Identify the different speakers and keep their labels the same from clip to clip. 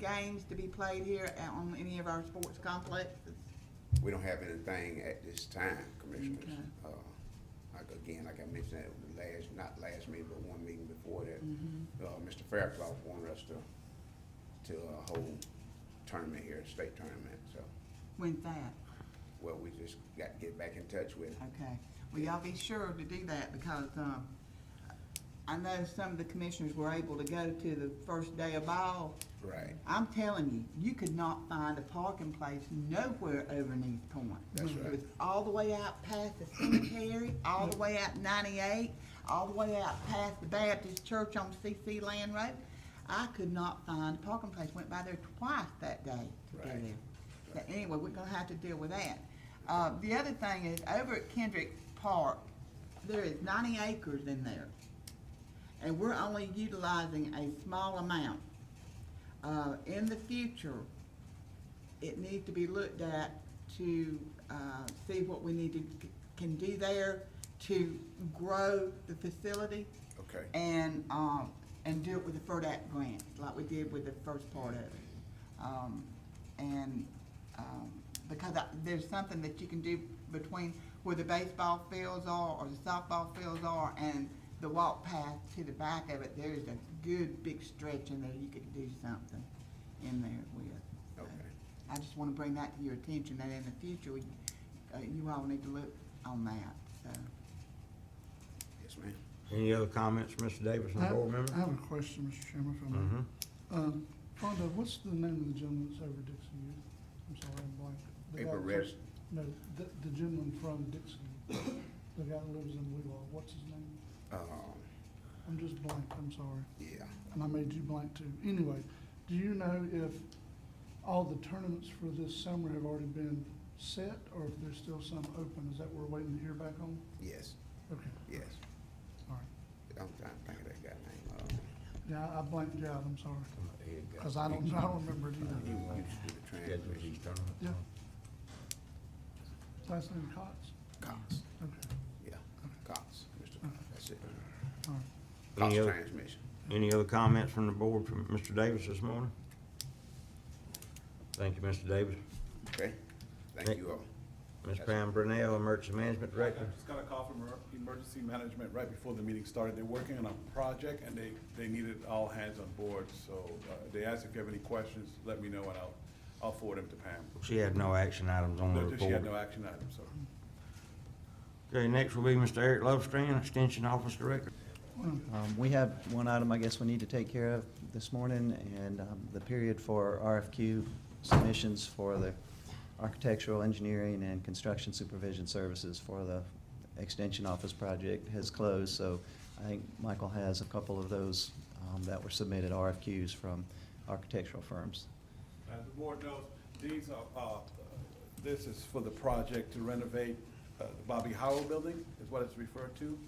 Speaker 1: games to be played here at- on any of our sports complexes?
Speaker 2: We don't have anything at this time, Commissioners.
Speaker 1: Okay.
Speaker 2: Uh, Like, again, like I mentioned at the last, not last meeting, but one meeting before that,
Speaker 1: Mm-hmm.
Speaker 2: uh, Mr. Fairclough wanted us to, to uh, hold tournament here, state tournament, so,
Speaker 1: When's that?
Speaker 2: well, we just got to get back in touch with it.
Speaker 1: Okay. Well, y'all be sure to do that because, um, I know some of the commissioners were able to go to the first day of ball.
Speaker 2: Right,
Speaker 1: I'm telling you, you could not find a parking place nowhere over in East Point.
Speaker 2: That's
Speaker 1: It
Speaker 2: right.
Speaker 1: was all the way out past the cemetery, all the way out ninety-eight, all the way out past the Baptist church on CC Land Road. I could not find a parking place, went by there twice that day to go
Speaker 2: Right.
Speaker 1: there. So anyway, we're gonna have to deal with that. Uh, the other thing is, over at Kendrick Park, there is ninety acres in there. And we're only utilizing a small amount. Uh, in the future, it needs to be looked at to, uh, see what we need to, can do there to grow the facility
Speaker 2: okay,
Speaker 1: and, um, and do it with the FERDAP grant, like we did with the first part of it. Um, and, um, because I, there's something that you can do between where the baseball fields are, or the softball fields are, and the walk path to the back of it, there is a good big stretch in there, you could do something in there with. So,
Speaker 2: Okay.
Speaker 1: I just wanna bring that to your attention, that in the future, we, uh, you all need to look on that, so.
Speaker 2: yes, ma'am.
Speaker 3: Any other comments, from Mr. Davis,
Speaker 4: I
Speaker 3: and the
Speaker 4: have
Speaker 3: board
Speaker 4: I
Speaker 3: member?
Speaker 4: have a question, Mr. Chairman, if I may.
Speaker 3: Mhm.
Speaker 4: Um, Fonda, what's the name of the gentleman that's over Dixie Youth? I'm sorry, I'm blank. The guy
Speaker 2: April
Speaker 4: that-
Speaker 2: Rest,
Speaker 4: No, the, the gentleman from Dixie, Youth. the guy that lives in Wheelock, what's his name?
Speaker 2: um,
Speaker 4: I'm just blank, I'm sorry,
Speaker 2: yeah,
Speaker 4: and I made you blank too. Anyway, do you know if all the tournaments for this summer have already been set, or if there's still some open? Is that what we're waiting to hear back on?
Speaker 2: yes,
Speaker 4: Okay,
Speaker 2: yes.
Speaker 4: all right.
Speaker 2: I'm trying to think of that guy's name.
Speaker 4: Yeah, I- I blanked you out, I'm sorry,
Speaker 3: Here you go.
Speaker 4: because I don't, I don't remember it
Speaker 2: Uh,
Speaker 4: either.
Speaker 2: You used to do the
Speaker 3: Schedule these
Speaker 2: translation.
Speaker 3: tournaments.
Speaker 4: Yeah. Last name Cox?
Speaker 2: Cox,
Speaker 4: Okay,
Speaker 2: yeah, Cox, Mr. Cox, that's it.
Speaker 4: all right.
Speaker 2: Cox
Speaker 3: Any other-
Speaker 2: transmission.
Speaker 3: Any other comments from the board from Mr. Davis this morning? Thank you, Mr. Davis.
Speaker 2: Okay,
Speaker 3: Thank-
Speaker 2: thank you all.
Speaker 3: Ms. Pam Brunell, Emergency Management
Speaker 5: I
Speaker 3: Director.
Speaker 5: just got a call from emer- emergency management right before the meeting started. They're working on a project and they, they needed all hands on board. So uh, they asked if you have any questions, let me know and I'll, I'll forward them to Pam.
Speaker 3: She had no action items on the
Speaker 5: No, She had no
Speaker 3: report.
Speaker 5: action items, so.
Speaker 3: Okay, next will be Mr. Eric Lovestrand, Extension Office Director.
Speaker 6: Um, We have one item I guess we need to take care of this morning, and um, the period for RFQ submissions for the architectural engineering and construction supervision services for the extension office project has closed, so I think Michael has a couple of those um, that were submitted RFQs from architectural firms.
Speaker 5: As the board knows, these are, uh, this is for the project to renovate uh, the Bobby Howell Building, is what it's referred to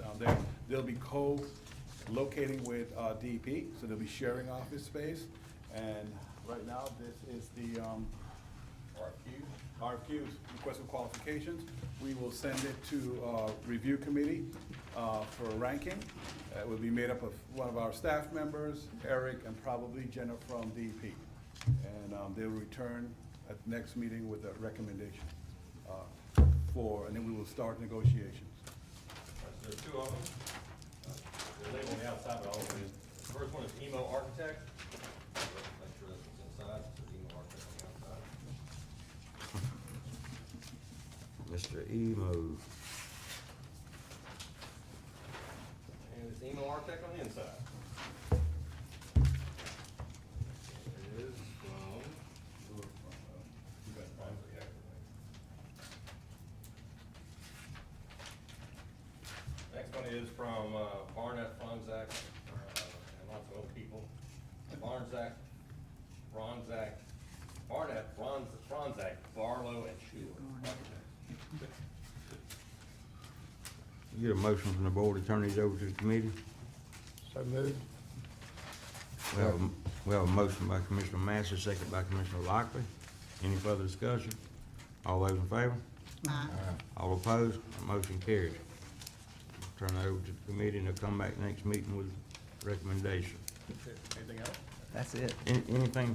Speaker 5: down there. They'll be co-locating with uh, DEP, so they'll be sharing office space. And right now, this is the um, RFQs, request for qualifications. We will send it to uh, review committee uh, for ranking. It will be made up of one of our staff members, Eric, and probably Jenna from DEP. And um, they will return at the next meeting with a recommendation uh, for, and then we will start negotiations.
Speaker 7: There's two of them. Uh, They're labeled on the outside, but I'll open it. The First one is Emo Architect. Make sure this is inside, it says Emo Architect on the outside.
Speaker 3: Mr. Emo.
Speaker 7: And it's Emo Architect on the inside. It is from. Next one is from uh, Barnett Fonzak, uh, and lots of old people. Barnzak, Ronzak, Barnett, Ronz, Ronzak, Barlow, and Schuler.
Speaker 3: Get a motion from the board to turn these over to the committee. So moved. We have a motion by Commissioner Massey, second by Commissioner Lockley. Any further discussion? All those in favor?
Speaker 1: Aye.
Speaker 3: All opposed? Motion carries. Turn that over to the committee, and they'll come back next meeting with recommendation.
Speaker 5: Anything else?
Speaker 6: That's it.
Speaker 3: Any- Anything